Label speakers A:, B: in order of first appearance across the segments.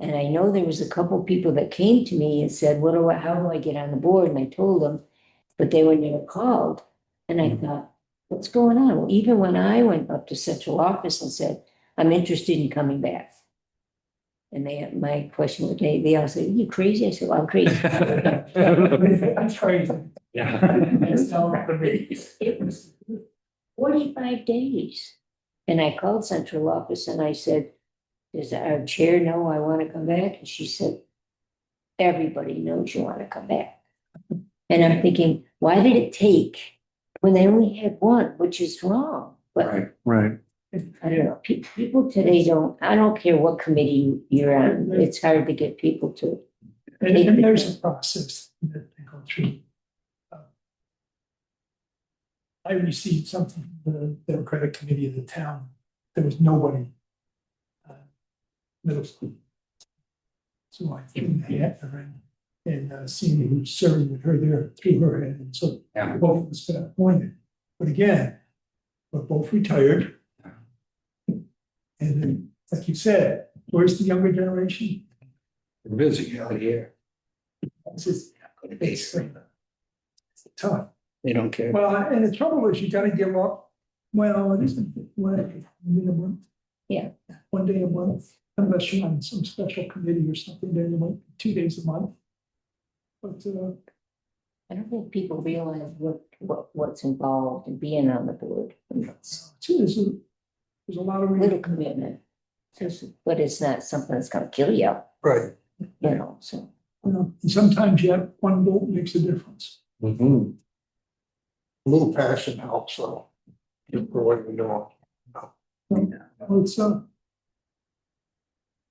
A: And I know there was a couple people that came to me and said, what do I, how do I get on the board? And I told them, but they were never called. And I thought, what's going on? Well, even when I went up to central office and said, I'm interested in coming back. And they, my question was, they, they all said, you crazy? I said, well, I'm crazy.
B: I'm crazy.
A: And so it was forty-five days. And I called central office and I said, does our chair know I want to come back? And she said, everybody knows you want to come back. And I'm thinking, why did it take when they only had one, which is wrong? But
C: Right.
A: I don't know, pe- people today don't, I don't care what committee you're on, it's hard to get people to.
B: And and there's a process that they go through. Um, I received something from the Democratic Committee of the town. There was nobody. uh, Middle school. So I threw my hat in the ring and uh, senior who's serving with her there threw her in and so
C: Yeah.
B: both of us got appointed. But again, we're both retired. And then, like you said, where's the younger generation?
C: We're Busy out here.
B: This is basically. It's tough.
C: They don't care.
B: Well, and the trouble is you gotta give up, well, it isn't, one day a month.
A: Yeah.
B: One day a month, unless you're on some special committee or something, then you might, two days a month. But, uh,
A: I don't think people realize what, what, what's involved in being on the board. It's-
B: two, there's a, there's a lot of.
A: little commitment. Just- But it's not something that's gonna kill you,
B: Right.
A: you know, so.
B: And sometimes you have one vote makes a difference.
C: Mhm.
D: Mm-hmm. A little passion helps, so. For what we know.
B: Well, it's, uh.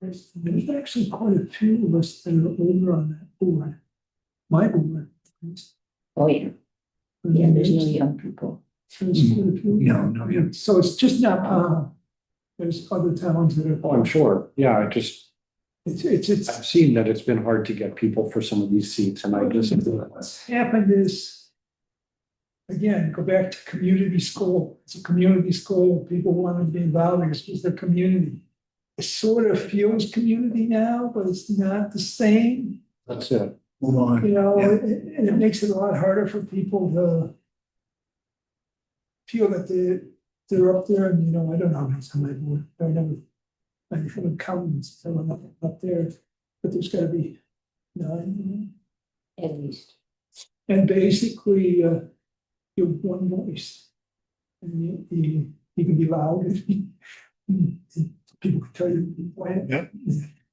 B: There's, there's actually quite a few of us that are older on that board. My board. at least.
A: Oh, yeah,
C: Mm-hmm.
A: yeah, there's no young people.
B: There's quite a few.
D: No, no, yeah.
B: So it's just not, uh, there's other towns that
C: Oh, I'm
B: are,
C: sure. Yeah, I just,
B: it's, it's,
C: I've
B: it's,
C: seen that it's been hard to get people for some of these seats and I just.
B: what's happened is. Again, go back to community school. It's a community school. People want to be involved. It's just a community. It sort of feels community now, but it's not the same.
C: That's it.
D: Move on.
B: You know,
D: Yeah.
B: it- it- and it makes it a lot harder for people to feel that they, they're up there and, you know, I don't know how many times I've worked, I never, I haven't counted, so I'm up, up there, but there's gotta be nine.
A: At least,
B: And basically, uh, you have one voice. And you, you, you can be loud if you, and people can tell you when.
D: Yeah.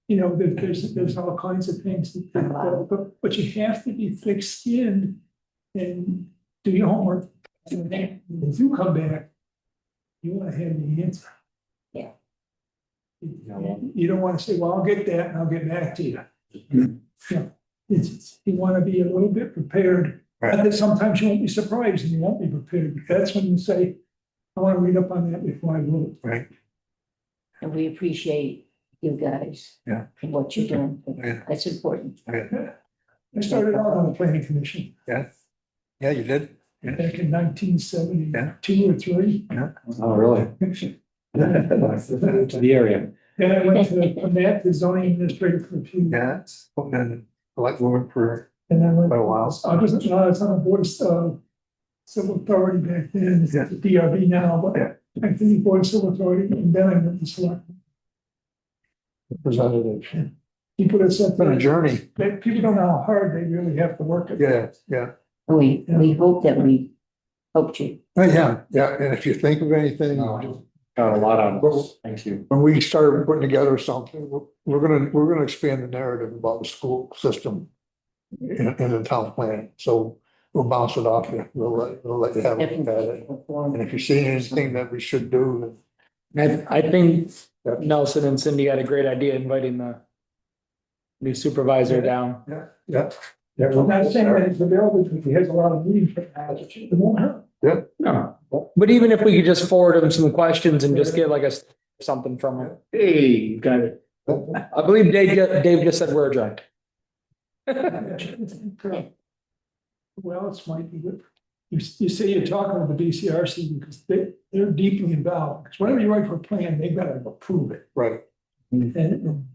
B: You know, there, there's, there's all kinds of things that, that go, but, but you have to be thick-skinned and do your homework. And then, if you come back, you wanna have the answer.
A: Yeah.
B: You you don't wanna say, well, I'll get that and I'll get back to you. Yeah, it's, it's- you wanna be a little bit prepared, and then sometimes you won't be surprised and you won't be prepared, but that's when you say, I wanna read up on that before I vote.
A: and we appreciate you guys.
D: Yeah.
A: And what you're doing,
D: Yeah.
A: that's important.
B: I started out on the planning commission
D: Yeah, you did.
B: back in nineteen
D: Yeah.
B: seventy-two or three.
C: Oh, really? To the area.
B: Then I went to, from that to zoning administrator for a few,
D: Yeah. Oh, it's Been a lot more for
B: and I went.
D: quite a while.
B: I was, no, I was on the board of, uh, civil authority back then, it's the DRB now, but
D: Yeah.
B: I think the board of civil authority, and then I went to select
D: Representative. It's
B: people that said.
D: Been a journey.
B: that people don't know how hard they really have to work. it.
D: Yeah, yeah.
A: We, we hope that we helped you.
D: Oh, yeah, yeah. And if you think of anything,
C: No. Got a lot out of this. Thank you.
D: when we started putting together something, we're- we're gonna, we're gonna expand the narrative about the school system in, in the town plan. So we'll bounce it off you. We'll let, we'll let you have a look at
A: Definitely.
D: it. And if you see anything that we should do, then
E: I, I think Nelson and Cindy had a great idea inviting the new supervisor down.
D: Yeah.
B: I'm not saying that it's available, because he has a lot of meetings right now, but it won't hurt.
E: No. But even if we could just forward him some questions and just get like a, s- something from him.
C: Hey, you got it.
E: I believe Dave, ju- Dave just said we're adjourned.
B: Well, it's might be good. You, you say you're talking with the BCRC because they, they're deeply involved, because whenever you write for a plan, they've got to approve it.
D: Right.
B: And